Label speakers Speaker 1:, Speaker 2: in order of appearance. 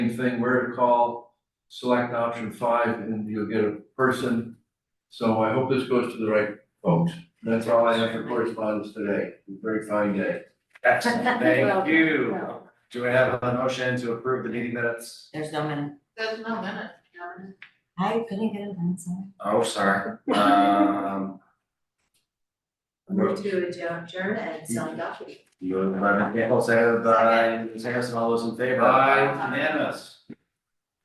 Speaker 1: same thing, where to call, select option five, and you'll get a person. So I hope this goes to the right folks. That's all I have for correspondence today. Very fine day.
Speaker 2: Excellent,
Speaker 3: Well
Speaker 2: thank
Speaker 3: done,
Speaker 2: you.
Speaker 3: well,
Speaker 2: Do we have a motion to approve the meeting minutes?
Speaker 3: There's no minute.
Speaker 4: There's no minute, Karen.
Speaker 3: I couldn't get it done, sorry.
Speaker 2: Oh, sorry, um.
Speaker 4: Move to adjourn and sign up.
Speaker 2: You and Lemon Campbell, seconded by Ms. Harrison, all those in favor?
Speaker 1: Aye.
Speaker 2: Unanimous.